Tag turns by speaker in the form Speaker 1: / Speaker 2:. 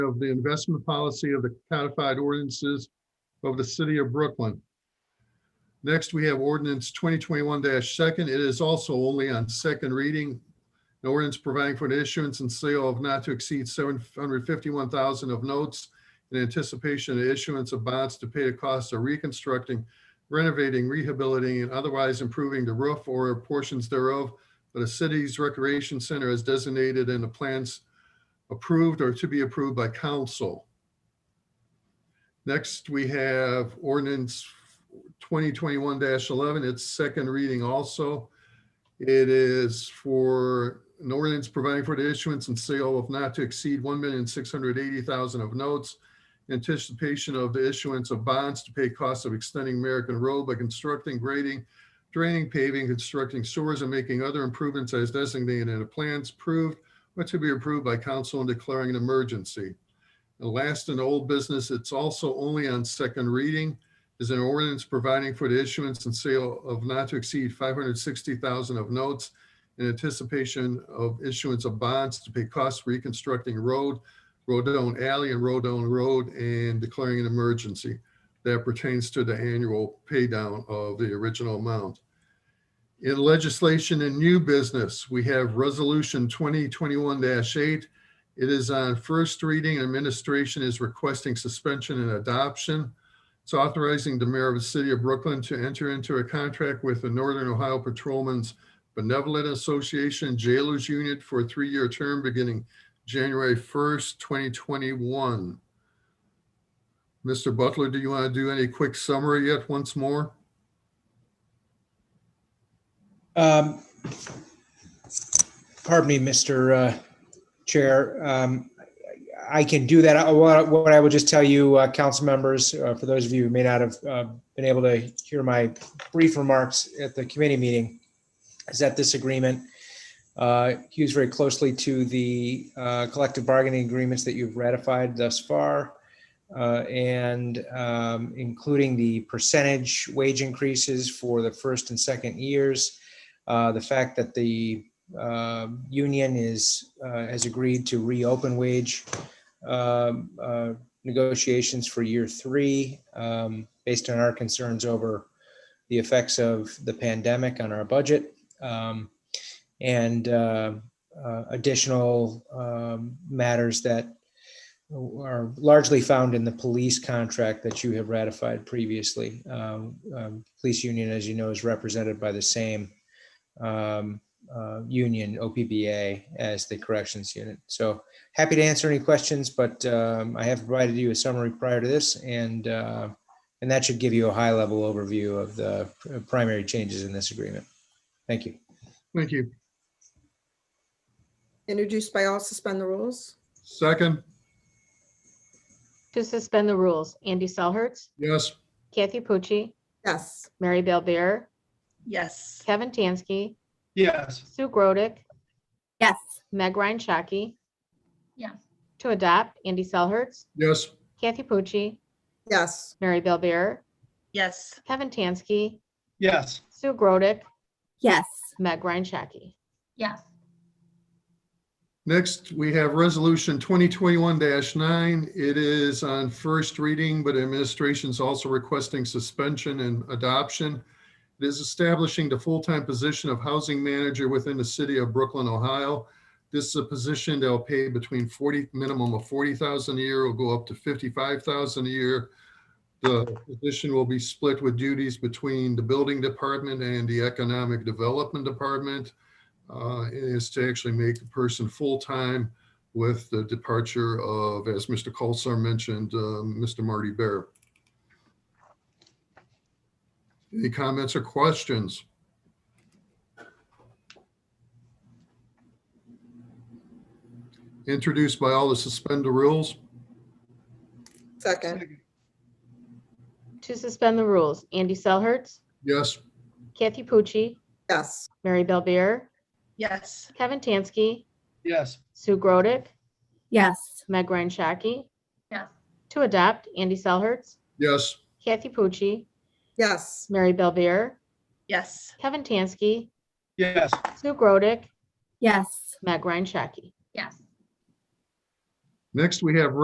Speaker 1: of the investment policy of the codified ordinances of the city of Brooklyn. Next, we have ordinance twenty twenty-one second. It is also only on second reading. An ordinance providing for the issuance and sale of not to exceed seven hundred fifty-one thousand of notes in anticipation of issuance of bonds to pay the costs of reconstructing, renovating, rehabilitating, and otherwise improving the roof or portions thereof that a city's recreation center is designated in the plans approved or to be approved by council. Next, we have ordinance twenty twenty-one eleven. It's second reading also. It is for an ordinance providing for the issuance and sale of not to exceed one million six hundred eighty thousand of notes anticipation of the issuance of bonds to pay costs of extending American Road by constructing, grading, draining, paving, constructing sewers, and making other improvements as designated in the plans approved or to be approved by council and declaring an emergency. And last in old business, it's also only on second reading, is an ordinance providing for the issuance and sale of not to exceed 560,000 of notes in anticipation of issuance of bonds to pay costs reconstructing road Rodone Alley and Rodone Road and declaring an emergency that pertains to the annual pay down of the original amount. In legislation and new business, we have Resolution 2021-8. It is on first reading. Administration is requesting suspension and adoption. It's authorizing the mayor of the city of Brooklyn to enter into a contract with the Northern Ohio Patrolmen's Benevolent Association Jailers Unit for a three-year term beginning January 1st, 2021. Mr. Butler, do you want to do any quick summary yet once more?
Speaker 2: Um, Pardon me, Mr. uh, Chair. Um, I can do that. I- What what I will just tell you, uh, council members, uh, for those of you who may not have uh, been able to hear my brief remarks at the committee meeting, is that this agreement uh, hews very closely to the uh, collective bargaining agreements that you've ratified thus far, uh, and um, including the percentage wage increases for the first and second years, uh, the fact that the uh, union is, uh, has agreed to reopen wage um, uh, negotiations for year three, um, based on our concerns over the effects of the pandemic on our budget. um, And uh, uh, additional um, matters that are largely found in the police contract that you have ratified previously. Um, um, Police union, as you know, is represented by the same um, uh, union, OPBA, as the corrections unit. So happy to answer any questions, but um, I have provided you a summary prior to this and, uh, and that should give you a high level overview of the pr- primary changes in this agreement. Thank you.
Speaker 1: Thank you.
Speaker 3: Introduced by all, suspend the rules?
Speaker 1: Second,
Speaker 4: To suspend the rules, Andy Selhertz,
Speaker 1: yes,
Speaker 4: Kathy Pucci,
Speaker 3: Yes.
Speaker 4: Mary Bellbeer,
Speaker 5: Yes.
Speaker 4: Kevin Tansky,
Speaker 6: yes,
Speaker 4: Sue Grodick,
Speaker 7: yes,
Speaker 4: Meg Ryan Shaki.
Speaker 5: Yes.
Speaker 4: To adopt, Andy Selhertz,
Speaker 1: yes,
Speaker 4: Kathy Pucci,
Speaker 3: Yes.
Speaker 4: Mary Bellbeer,
Speaker 5: Yes.
Speaker 4: Kevin Tansky,
Speaker 6: yes,
Speaker 4: Sue Grodick,
Speaker 7: yes,
Speaker 4: Meg Ryan Shaki.
Speaker 5: Yes.
Speaker 1: Next, we have Resolution 2021-9. It is on first reading, but administration's also requesting suspension and adoption. It is establishing the full-time position of housing manager within the city of Brooklyn, Ohio. This is a position they'll pay between 40, minimum of 40,000 a year, will go up to 55,000 a year. The position will be split with duties between the building department and the economic development department uh, is to actually make the person full-time with the departure of, as Mr. Colasar mentioned, uh, Mr. Marty Bear. Any comments or questions? Introduced by all to suspend the rules?
Speaker 3: Second.
Speaker 4: To suspend the rules, Andy Selhertz,
Speaker 1: Yes,
Speaker 4: Kathy Pucci,
Speaker 3: Yes.
Speaker 4: Mary Bellbeer,
Speaker 5: Yes.
Speaker 4: Kevin Tansky,
Speaker 6: yes,
Speaker 4: Sue Grodick,
Speaker 7: yes,
Speaker 4: Meg Ryan Shaki.
Speaker 5: Yes.
Speaker 4: To adopt, Andy Selhertz,
Speaker 1: yes,
Speaker 4: Kathy Pucci,
Speaker 3: Yes.
Speaker 4: Mary Bellbeer,
Speaker 5: Yes.
Speaker 4: Kevin Tansky,
Speaker 6: yes,
Speaker 4: Sue Grodick,
Speaker 7: yes.
Speaker 4: Meg Ryan Shaki.
Speaker 5: Yes.
Speaker 1: next we have